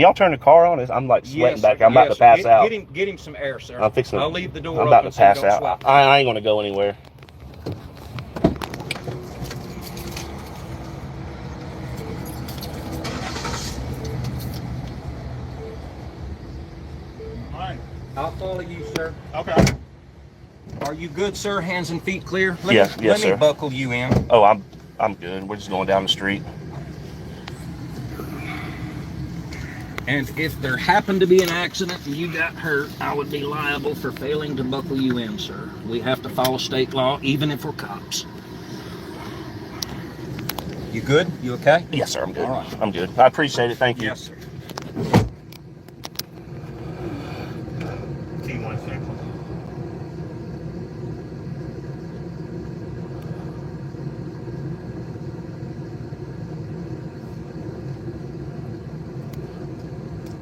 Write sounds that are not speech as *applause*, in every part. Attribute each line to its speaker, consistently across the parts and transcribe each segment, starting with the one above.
Speaker 1: y'all turn the car on? It's- I'm like sweating
Speaker 2: Yes,
Speaker 1: back. I'm about
Speaker 2: yes.
Speaker 1: to pass
Speaker 2: Get-
Speaker 1: out.
Speaker 2: Get him, get him some air, sir.
Speaker 1: I'm fixing.
Speaker 2: I'll leave the door
Speaker 1: I'm
Speaker 2: open
Speaker 1: about to
Speaker 2: so you
Speaker 1: pass
Speaker 2: don't
Speaker 1: out.
Speaker 2: sweat.
Speaker 1: I, I ain't gonna go anywhere.
Speaker 3: Alright,
Speaker 2: I'll follow you, sir.
Speaker 3: okay.
Speaker 2: Are you good, sir? Hands and feet clear? Let
Speaker 1: Yes,
Speaker 2: me,
Speaker 1: yes,
Speaker 2: Let me
Speaker 1: sir.
Speaker 2: buckle you in.
Speaker 1: Oh, I'm I'm good. We're just going down the street.
Speaker 2: And if there happened to be an accident and you got hurt, I would be liable for failing to buckle you in, sir. We have to follow state law, even if we're cops. You good? You okay?
Speaker 1: Yes, sir. I'm good.
Speaker 2: All right.
Speaker 1: I'm good. I appreciate it. Thank you.
Speaker 2: Yes, sir.
Speaker 3: T one six.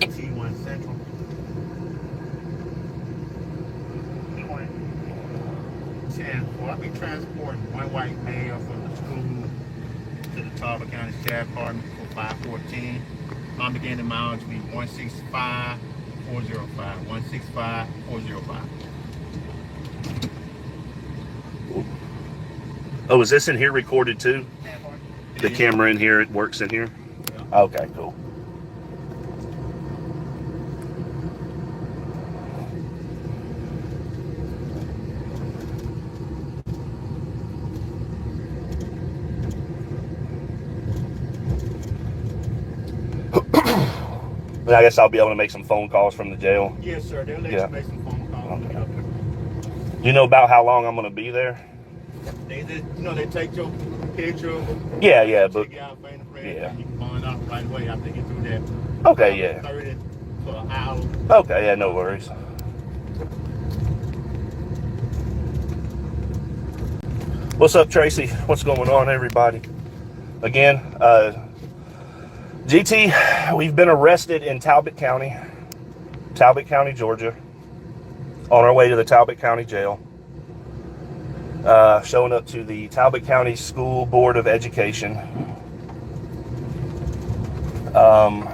Speaker 3: T one central. Twenty. Ten, will I be transporting one white male from the school to the Talbot County Sheriff Department for five fourteen? I'm beginning mileage to be one six five four zero five, one six five four zero five.
Speaker 1: Oh, is this in here recorded too? The
Speaker 3: Yeah.
Speaker 1: camera in here, it works in here.
Speaker 3: Yeah.
Speaker 1: Okay, cool. *clears throat* Then I guess I'll be able to make some phone calls from the jail.
Speaker 3: Yes, sir, they'll let
Speaker 1: Yeah.
Speaker 3: you make some phone calls. when you get up there.
Speaker 1: Do you know about how long I'm gonna be there?
Speaker 3: They, they, you know, they take your picture,
Speaker 1: Yeah, yeah, but
Speaker 3: check out fingerprint,
Speaker 1: yeah.
Speaker 3: and you can find out right away after you get through that.
Speaker 1: okay, yeah.
Speaker 3: Thirty for an hour.
Speaker 1: Okay, yeah, no worries. What's up, Tracy? What's going on, everybody? Again, uh, GT, we've been arrested in Talbot County, Talbot County, Georgia, on our way to the Talbot County Jail. Uh, showing up to the Talbot County School Board of Education um,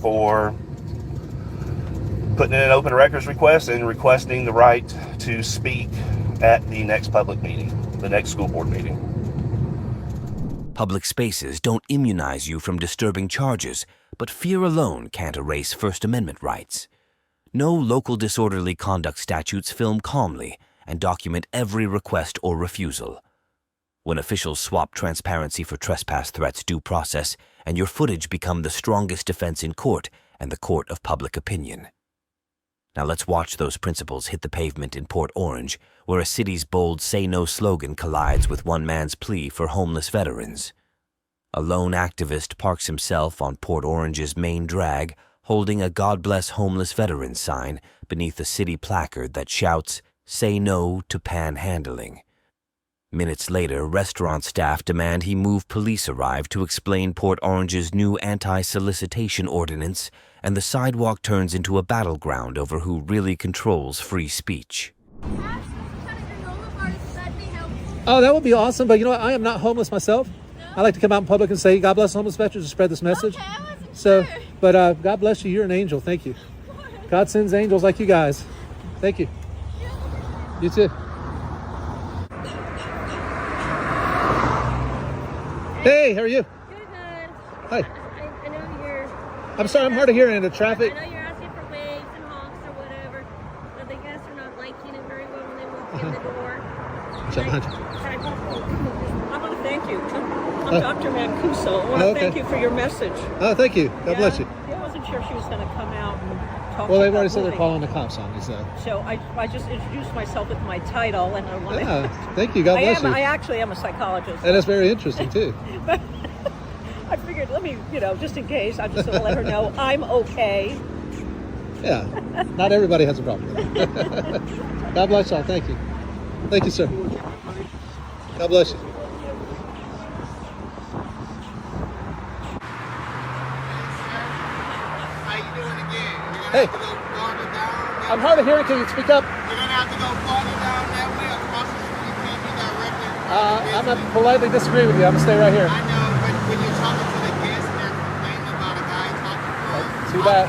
Speaker 1: for putting in an open records request and requesting the right to speak at the next public meeting, the next school board meeting.
Speaker 4: Public spaces don't immunize you from disturbing charges, but fear alone can't erase First Amendment rights. No local disorderly conduct statutes film calmly and document every request or refusal. When officials swap transparency for trespass threats due process, and your footage become the strongest defense in court and the court of public opinion. Now let's watch those principles hit the pavement in Port Orange, where a city's bold Say No slogan collides with one man's plea for homeless veterans. A lone activist parks himself on Port Orange's main drag, holding a God Bless Homeless Veterans sign beneath a city placard that shouts, Say No to Panhandling. Minutes later, restaurant staff demand he move police arrive to explain Port Orange's new anti solicitation ordinance, and the sidewalk turns into a battleground over who really controls free speach.
Speaker 5: Oh, that would be awesome. But you know what? I am not homeless myself. I like to come out in public and say, God bless homeless veterans and spread this message.
Speaker 6: Okay, I wasn't
Speaker 5: So,
Speaker 6: sure.
Speaker 5: but uh, God bless you. You're an angel. Thank you. God sends angels like you guys. Thank you. You too. Hey, how are you?
Speaker 6: Good, good.
Speaker 5: Hi.
Speaker 6: I, I know you're.
Speaker 5: I'm sorry, I'm hard of hearing in the traffic.
Speaker 6: I know you're asking for waves and honks or whatever, but I guess you're not liking it very well when they walk in the door.
Speaker 5: Shut
Speaker 6: Like,
Speaker 5: up.
Speaker 6: can
Speaker 7: I want to thank you. I'm
Speaker 5: Oh.
Speaker 7: Dr. Mancuso. I want
Speaker 5: Oh,
Speaker 7: to
Speaker 5: okay.
Speaker 7: thank you for your message. God
Speaker 5: Oh, thank you. God bless you.
Speaker 7: I wasn't sure she was going to come out and
Speaker 5: Well,
Speaker 7: talk to you
Speaker 5: they've
Speaker 7: about
Speaker 5: already said they're
Speaker 7: moving.
Speaker 5: calling the cops on me, so.
Speaker 7: So I, I just introduced myself with my title, and I want
Speaker 5: Yeah,
Speaker 7: to.
Speaker 5: thank you. Ah, God
Speaker 7: I
Speaker 5: bless
Speaker 7: am.
Speaker 5: you. Uh,
Speaker 7: I actually am a psychologist.
Speaker 5: And it's very interesting, too.
Speaker 7: I figured, let me, you know, just in case, I just want to let her know I'm okay.
Speaker 5: Yeah, not everybody has a problem. with it. God bless y'all. Thank you. Thank you, sir. God bless you.
Speaker 3: How you doing again? We're gonna
Speaker 5: Hey.
Speaker 3: have to go farther down.
Speaker 5: I'm hard of hearing. Can you speak up?
Speaker 3: That, we're gonna have to go farther down that way across the street. You can't be directly. in front
Speaker 5: Uh,
Speaker 3: of the
Speaker 5: I'm
Speaker 3: business.
Speaker 5: gonna politely disagree with you. I'm gonna stay right here.
Speaker 3: I know, but when you're talking to the guests, they're complaining about a guy talking to us.
Speaker 5: Too bad.